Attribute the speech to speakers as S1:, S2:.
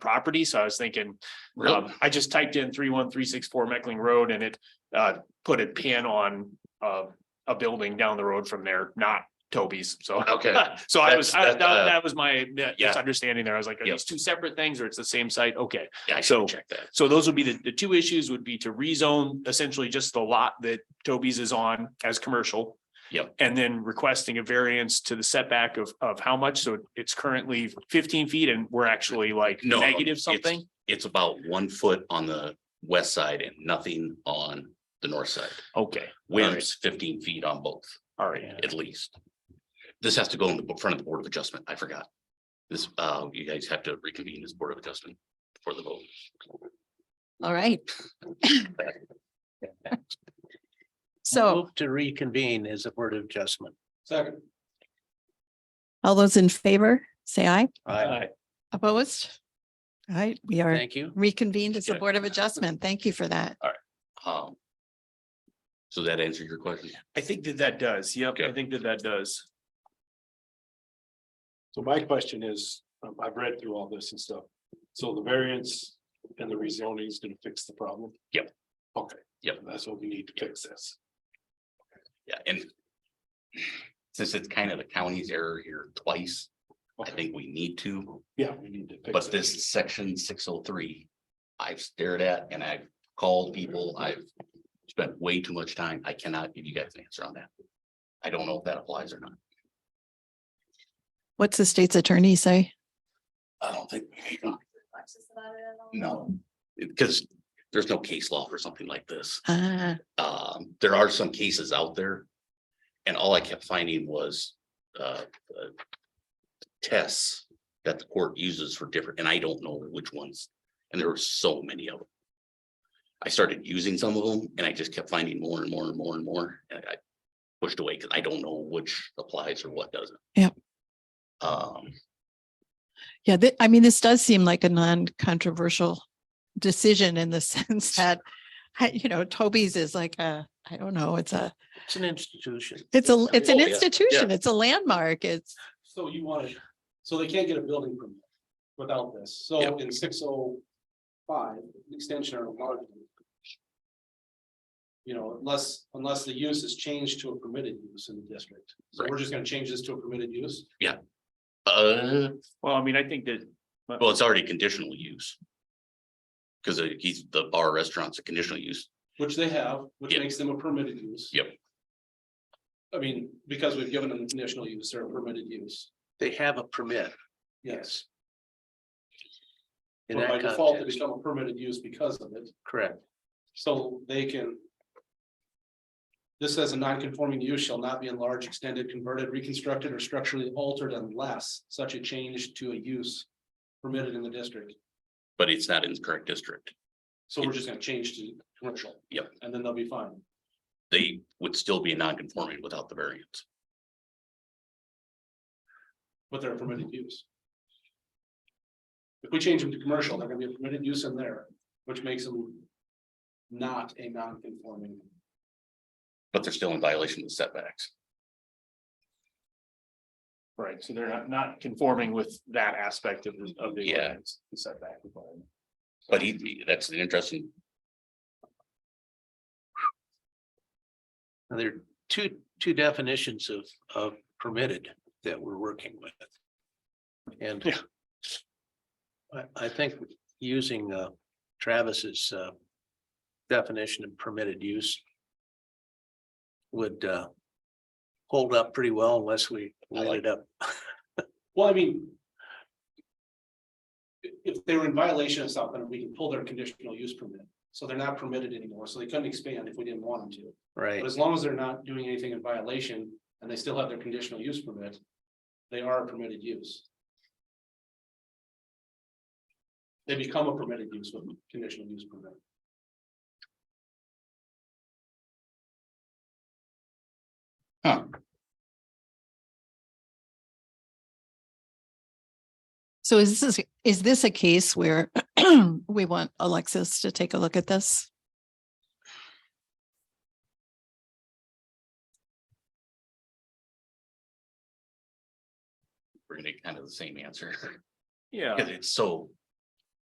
S1: property, so I was thinking,
S2: Really?
S1: um, I just typed in three one three six four Meckling Road and it uh put a pin on uh a building down the road from there, not Toby's, so.
S2: Okay.
S1: So I was, I-
S2: That's-
S1: that
S2: that, uh,
S1: that was my uh,
S2: Yeah.
S1: misunderstanding there. I was like, are
S2: Yep.
S1: these two separate things or it's the same site? Okay.
S2: Yeah, I
S1: So-
S2: should check that.
S1: So those would be the, the two issues would be to rezone essentially just the lot that Toby's is on as commercial.
S2: Yep.
S1: And then requesting a variance to the setback of, of how much? So it's currently fifteen feet and we're actually like
S2: No, uh,
S1: negative
S2: it's-
S1: something?
S2: It's about one foot on the west side and nothing on the north side.
S1: Okay,
S2: Wims fifteen feet on both,
S1: all right.
S2: at least. This has to go in the bo- front of the Board of Adjustment. I forgot. This, uh, you guys have to reconvene this Board of Adjustment for the vote.
S3: All right. So
S4: Move To reconvene as a board of adjustment.
S2: Second.
S3: all those in favor, say aye.
S4: Aye.
S3: Opposed? All right, we are
S4: Thank you.
S3: reconvened as the
S2: Yeah.
S3: Board of Adjustment. Thank you for that.
S2: Um. So that answered your question?
S1: I think that that does. Yep, I
S2: Okay.
S1: think that that does.
S5: So my question is, um, I've read through all this and stuff, so the variance and the rezoning is gonna fix the problem?
S2: Yep.
S5: Okay.
S2: Yep.
S5: That's what we need to fix this.
S2: Yeah, and. Since it's kind of the county's error here twice, I
S5: Okay,
S2: think we need to.
S5: yeah, we need to. fix
S2: But this section six oh three, I've stared at and I've called people, I've spent way too much time. I cannot give you guys an answer on that. I don't know if that applies or not.
S3: What's the state's attorney say?
S2: I don't think. No, because there's no case law for something like this.
S3: Ah,
S2: um, there are some cases out there. And all I kept finding was, uh, uh, tests that the court uses for different, and I don't know which ones. And there were so many of them. I started using some of them and I just kept finding more and more and more and more, and I pushed away because I don't know which applies or what doesn't.
S3: Yep.
S2: Um,
S3: yeah, thi- I mean, this does seem like a non-controversial decision in the sense that, I- you know, Toby's is like a, I don't know, it's a,
S4: It's an institution.
S3: it's a, it's an
S2: Oh, yeah, yeah.
S3: institution, it's a landmark, it's,
S5: So you want to, so they can't get a building permit without this, so
S2: Yep.
S5: in six oh five, extension or enlargement. You know, unless, unless the use is changed to a permitted use in the district, so we're
S2: Right.
S5: just gonna change this to a permitted use?
S2: uh,
S1: Well, I mean, I think that
S2: well, it's already conditional use. Because he's, the bar restaurant's a conditional use.
S5: Which they have, which
S2: Yep.
S5: makes them a permitted use.
S2: Yep.
S5: I mean, because we've given them conditional use, they're a permitted use,
S4: They have a permit.
S5: yes.
S4: In
S5: But by
S4: that
S5: default, they
S4: context,
S5: become a permitted use because of it,
S4: correct.
S5: so they can. This says a non-conforming use shall not be enlarged, extended, converted, reconstructed, or structurally altered unless such a change to a use. Permitted in the district,
S2: but it's not in the correct district.
S5: so we're just gonna change to commercial.
S2: Yep.
S5: And then they'll be fine.
S2: They would still be non-conforming without the variance.
S5: But they're a permitted
S1: Mhm.
S5: use. If we change them to commercial, they're gonna be a permitted use in there, which makes them. Not a non-conforming,
S2: But they're still in violation of the setbacks.
S1: Right, so they're not, not conforming with that aspect of, the- of the.
S2: Yeah.
S1: ordinance, the Setback. requirement.
S2: But he, that's an interesting,
S4: Now, There are two, two definitions of, of permitted that we're working with. And
S1: Yeah.
S4: I, I think using uh, Travis's uh, definition of permitted use would uh, hold up pretty well unless we
S2: I like
S4: line it up.
S5: well, I mean. i- If they were in violation of something, we can pull their conditional use permit, so they're not permitted anymore, so they couldn't expand if we didn't want them to.
S4: Right.
S5: But as long as they're not doing anything in violation and they still have their conditional use permit. They are a permitted use. They become a permitted use with conditional use permit.
S3: so is this, is this a case where we want Alexis to take a look at this?
S2: we're gonna get kind of the same answer,
S1: Yeah.
S2: because it's so